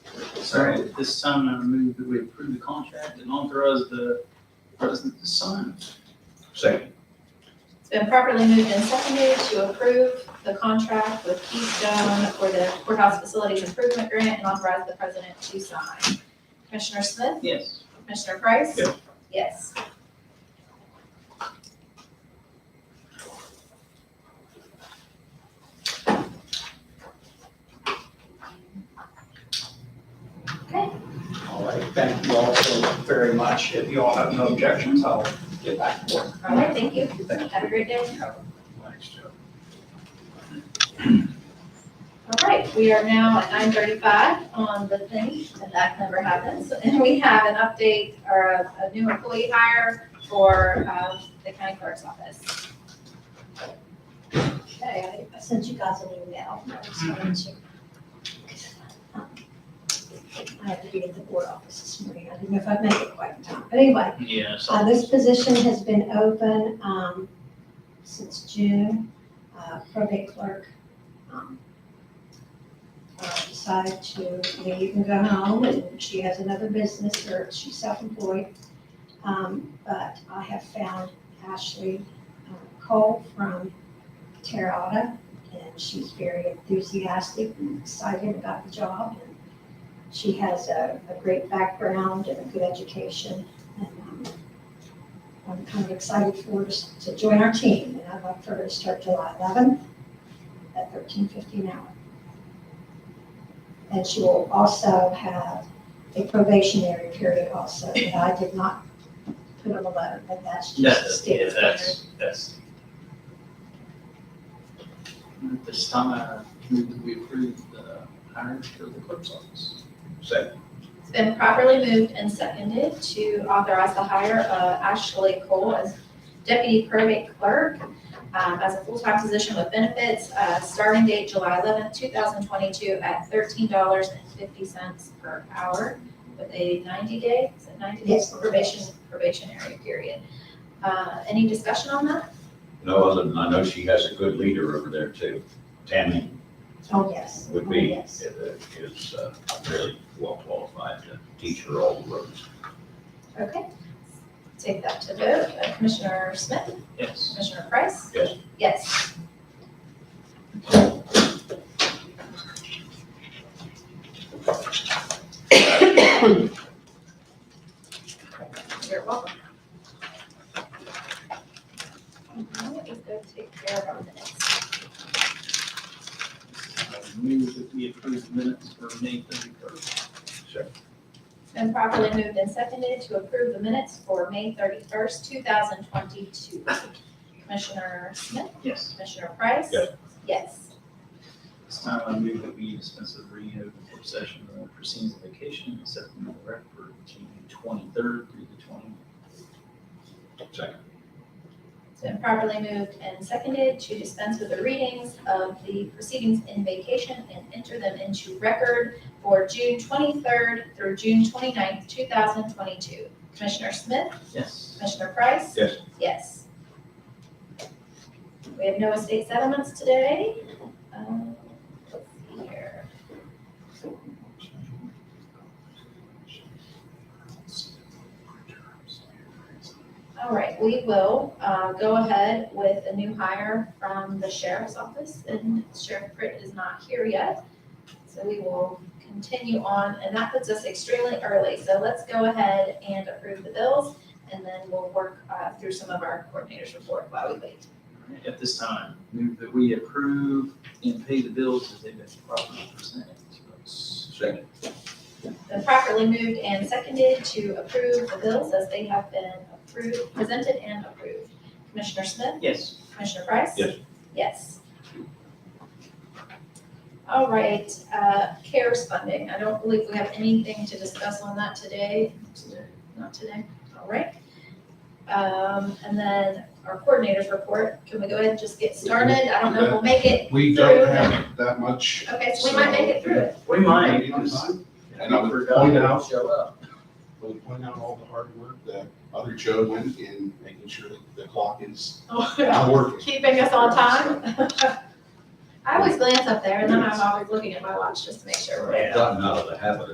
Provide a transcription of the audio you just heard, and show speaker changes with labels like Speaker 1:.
Speaker 1: So at this time, I move that we approve the contract and authorize the president to sign.
Speaker 2: Second.
Speaker 3: It's been properly moved and seconded to approve the contract with Keystone for the courthouse facilities improvement grant and authorize the president to sign. Commissioner Smith?
Speaker 1: Yes.
Speaker 3: Commissioner Price?
Speaker 2: Yes.
Speaker 3: Yes.
Speaker 2: All right, thank you all so very much. If you all have no objections, I'll get back to work.
Speaker 3: All right, thank you.
Speaker 2: Thank you.
Speaker 3: Have a great day.
Speaker 2: Thanks, Joe.
Speaker 3: All right, we are now at nine thirty-five on the thing, and that never happens. And we have an update or a, a new employee hire for, um, the county clerk's office.
Speaker 4: Okay, I sent you guys an email. I was going to- I had to be at the board office this morning. I didn't know if I'd make it quite in time. But anyway,
Speaker 1: Yes.
Speaker 4: uh, this position has been open, um, since June. Uh, probate clerk, um, uh, decided to leave and go home and she has another business or she's self-employed. Um, but I have found Ashley uh, Cole from Terada, and she's very enthusiastic and excited about the job. And She has a, a great background and a good education, and um, I'm kind of excited for her to- to join our team, and I'd like for her to start July eleventh at thirteen fifty an hour. And she will also have a probationary period also, that I did not put on the letter, but that's just the
Speaker 1: That's, yeah,
Speaker 4: state.
Speaker 1: that's, that's. And At this time, I move that we approve the hire for the clerk's office.
Speaker 2: Second.
Speaker 3: It's been properly moved and seconded to authorize the hire of Ashley Cole as deputy probate clerk um, as a full-time position with benefits, uh, starting date July eleventh, two thousand twenty-two at thirteen dollars and fifty cents per hour with a ninety-day, is it ninety days
Speaker 4: Yes.
Speaker 3: probation, probationary period. Uh, any discussion on that?
Speaker 5: No, other than I know she has a good leader over there too. Tammy
Speaker 4: Oh, yes.
Speaker 5: would
Speaker 4: Oh,
Speaker 5: be,
Speaker 4: yes.
Speaker 5: is, uh, is uh, really well qualified to teach her all the ropes.
Speaker 3: Okay. Take that to vote. Uh, Commissioner Smith,
Speaker 1: Yes.
Speaker 3: Commissioner Price?
Speaker 5: Yes.
Speaker 3: Yes. You're welcome. Now let me go take care of our minutes.
Speaker 1: I move that we approve the minutes for May thirty-first.
Speaker 5: Second.
Speaker 3: It's been properly moved and seconded to approve the minutes for May thirty-first, two thousand twenty-two. Commissioner Smith,
Speaker 1: Yes.
Speaker 3: Commissioner Price?
Speaker 5: Yes.
Speaker 3: Yes.
Speaker 1: This time, I move that we dispense with reading of the reopen session of the proceedings of vacation, except for the record for June twenty-third through the twenty.
Speaker 5: Second.
Speaker 3: It's been properly moved and seconded to dispense with the readings of the proceedings in vacation and enter them into record for June twenty-third through June 29th, thousand twenty-two. Commissioner Smith,
Speaker 1: Yes.
Speaker 3: Commissioner Price?
Speaker 5: Yes.
Speaker 3: Yes. We have no estate settlements today. Um, Let's see here. All right, we will uh, go ahead with a new hire from the sheriff's office, and Sheriff Pritt is not here yet. So we will continue on, and that puts us extremely early. So let's go ahead and approve the bills, and then we'll work uh, through some of our coordinators' report while we wait.
Speaker 1: At this time, move that we approve and pay the bills as they've been properly presented to us.
Speaker 5: Second.
Speaker 3: Been properly moved and seconded to approve the bills as they have been approved, presented and approved. Commissioner Smith?
Speaker 1: Yes.
Speaker 3: Commissioner Price?
Speaker 5: Yes.
Speaker 3: Yes. All right, uh, CARES funding, I don't believe we have anything to discuss on that today,
Speaker 1: Today.
Speaker 3: not today, all right. Um, and then our coordinators report, can we go ahead and just get started? I don't know if we'll make it,
Speaker 6: We don't have that much.
Speaker 3: okay, so we might make it through it.
Speaker 1: We might, because
Speaker 6: We'll
Speaker 1: and I would
Speaker 6: point out-
Speaker 1: show up.
Speaker 6: point out all the hard work that other Joe went in making sure that the clock is
Speaker 3: Oh, yeah.
Speaker 6: now working.
Speaker 3: Keeping us on time? I always glance up there and then I'm always looking at my watch just to make sure we're
Speaker 5: Gotten out of the habit of